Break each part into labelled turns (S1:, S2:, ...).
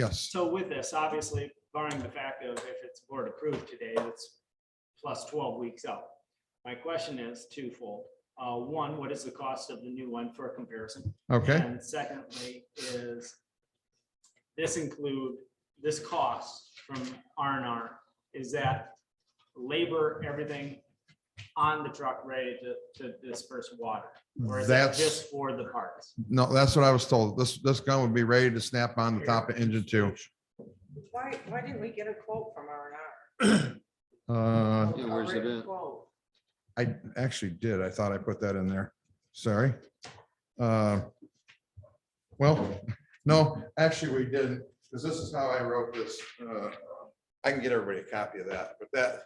S1: Yes,
S2: So with this, obviously barring the fact of if it's board approved today, that's plus twelve weeks out. My question is twofold. Uh, one, what is the cost of the new one for comparison?
S1: okay,
S2: And secondly is this include, this cost from R and R, is that labor, everything on the truck ready to, to disperse water? Or is that
S1: that's,
S2: just for the parts?
S1: no, that's what I was told. This, this gun would be ready to snap on the top of engine two.
S3: Why, why didn't we get a quote from R
S1: Uh,
S3: and R?
S4: Yeah, where's it at?
S1: I actually did. I thought I put that in there. Sorry. Uh, Well, no, actually, we didn't, because this is how I wrote this. Uh, I can get everybody a copy of that, but that.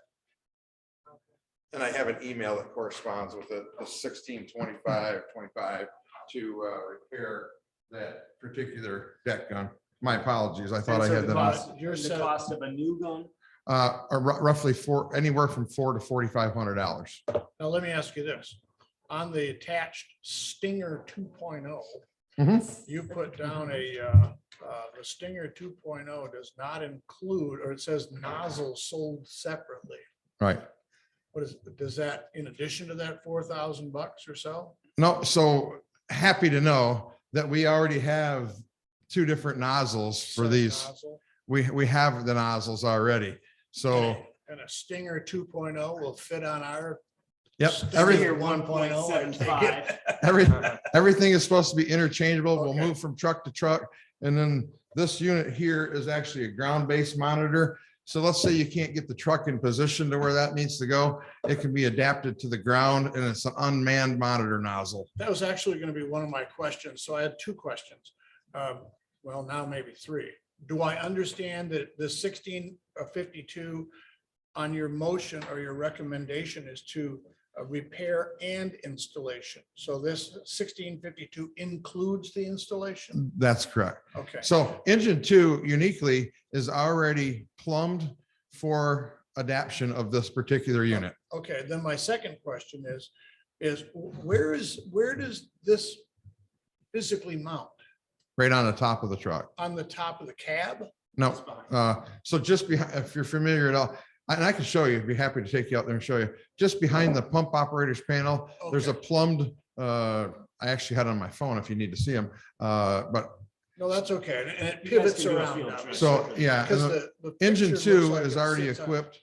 S1: And I have an email that corresponds with it, the sixteen twenty-five twenty-five to uh, repair that particular deck gun. My apologies. I thought I
S2: And so
S1: had
S2: the
S1: that on.
S2: cost- The cost of a new gun
S1: Uh, are rou- Roughly four, anywhere from four to forty-five hundred dollars.
S5: Now, let me ask you this. On the attached Stinger two oh,
S1: Mm-hmm.
S5: you put down a, uh, uh, the Stinger two oh does not include, or it says nozzle sold separately.
S1: Right.
S5: What is, does that, in addition to that four thousand bucks or so?
S1: No, so happy to know that we already have two different nozzles for
S5: Set
S1: these.
S5: nozzle?
S1: We, we have the nozzles already. So,
S5: And a Stinger two oh will fit on our.
S1: yep,
S5: Stinger
S1: everything,
S5: 1.0, I take it.
S2: 1.75.
S1: every, everything is supposed to be interchangeable. We'll
S5: Okay.
S1: move from truck to truck. And then this unit here is actually a ground-based monitor. So let's say you can't get the truck in position to where that needs to go. It can be adapted to the ground and it's an unmanned monitor nozzle.
S5: That was actually going to be one of my questions. So I had two questions. Um, Well, now maybe three. Do I understand that the sixteen or fifty-two on your motion or your recommendation is to uh, repair and installation? So this sixteen fifty-two includes the installation?
S1: That's correct.
S5: Okay,
S1: So engine two uniquely is already plumbed for adaption of this particular unit.
S5: okay. Then my second question is, is where is, where does this physically mount?
S1: Right on the top of the truck.
S5: On the top of the cab?
S1: No, uh, so just behind, if you're familiar at all, and I can show you, I'd be happy to take you out there and show you. Just behind the pump operators panel, there's a
S5: Okay.
S1: plumbed, uh, I actually had it on my phone if you need to see them, uh, but
S5: No, that's okay. and- And it
S2: You guys
S5: pivots
S2: can do a
S5: around.
S2: field
S5: obviously.
S2: trip.
S1: so, yeah. and
S5: Because
S1: the-
S5: the. the
S1: Engine
S5: picture looks
S1: two
S5: like
S1: is
S5: it
S1: already
S5: sits on-
S1: equipped,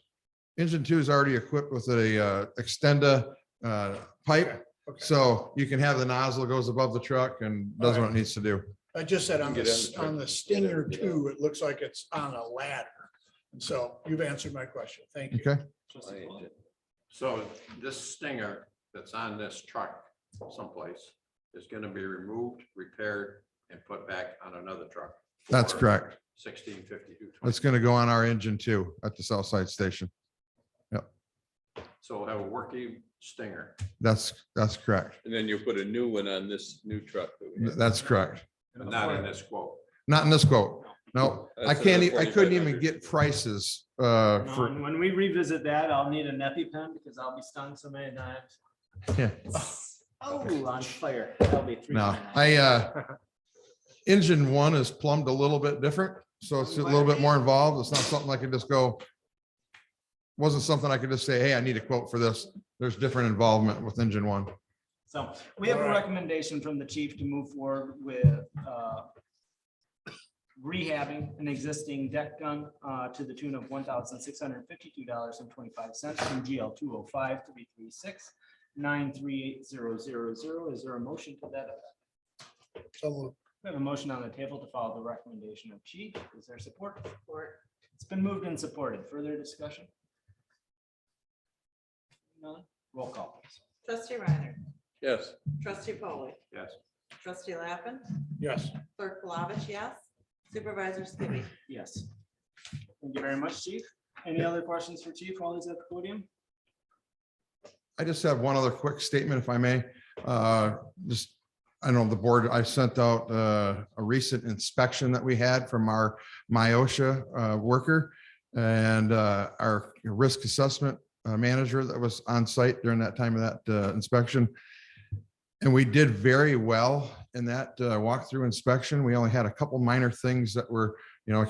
S1: engine two is already equipped with a, uh, extenda, uh, pipe.
S5: okay.
S1: So you can have the nozzle goes above the truck and does what it needs to do.
S5: I just said on
S4: Get
S5: the,
S4: in the
S5: on the
S4: picture.
S5: Stinger
S4: Get in, get
S5: two, it looks like it's on a ladder. And so you've answered my question. Thank you.
S1: Okay,
S2: Trustee Paul.
S6: So this stinger that's on this truck someplace is gonna be removed, repaired, and put back on another truck.
S1: that's
S6: for
S1: correct.
S6: Sixteen fifty-two.
S1: It's going to go on our engine two at the South Side Station.
S6: So we'll have a working stinger.
S1: That's, that's correct.
S4: And then you put a new one on this new truck. that we have.
S1: That's correct.
S6: but Not in this quote.
S1: Not in this quote. No, I
S4: That's
S1: can't,
S4: another
S1: e- I couldn't even
S4: 4,500.
S1: get prices, uh,
S2: No,
S1: for,
S2: and When we revisit that, I'll need a neppy pen because I'll be stung so many times.
S1: Yeah.
S2: Oh, on fire. That'll be three.
S1: no,
S2: times.
S1: I, uh, engine one is plumbed a little bit different. So it's a little bit more involved. It's not something I can just go. Wasn't something I could just say, hey, I need a quote for this. There's different involvement with engine one.
S2: So we have a
S5: Alright.
S2: recommendation from the chief to move forward with uh, rehabbing an existing deck gun uh, to the tune of one thousand six hundred fifty-two dollars and twenty-five cents from GL two oh five three three six nine three eight zero zero zero. Is there a motion to that? effect?
S5: So
S2: We have a motion on the table to follow the recommendation of chief. Is there support? Support. It's been moved and supported. Further discussion? None? Roll call. please.
S3: Trustee Reiner,
S4: Yes,
S3: trustee Polly,
S6: Yes.
S3: trustee Lappin,
S5: yes,
S3: clerk Palovich, yes. Supervisor Skibby.
S2: Yes. Thank you very much, Chief. Any other questions for Chief while he's at the podium?
S1: I just have one other quick statement, if I may. Uh, Just, I know the board, I sent out uh, a recent inspection that we had from our Myosha uh, worker and uh, our risk assessment uh, manager that was on site during that time of that uh, inspection. And we did very well in that uh, walkthrough inspection. We only had a couple minor things that were you know,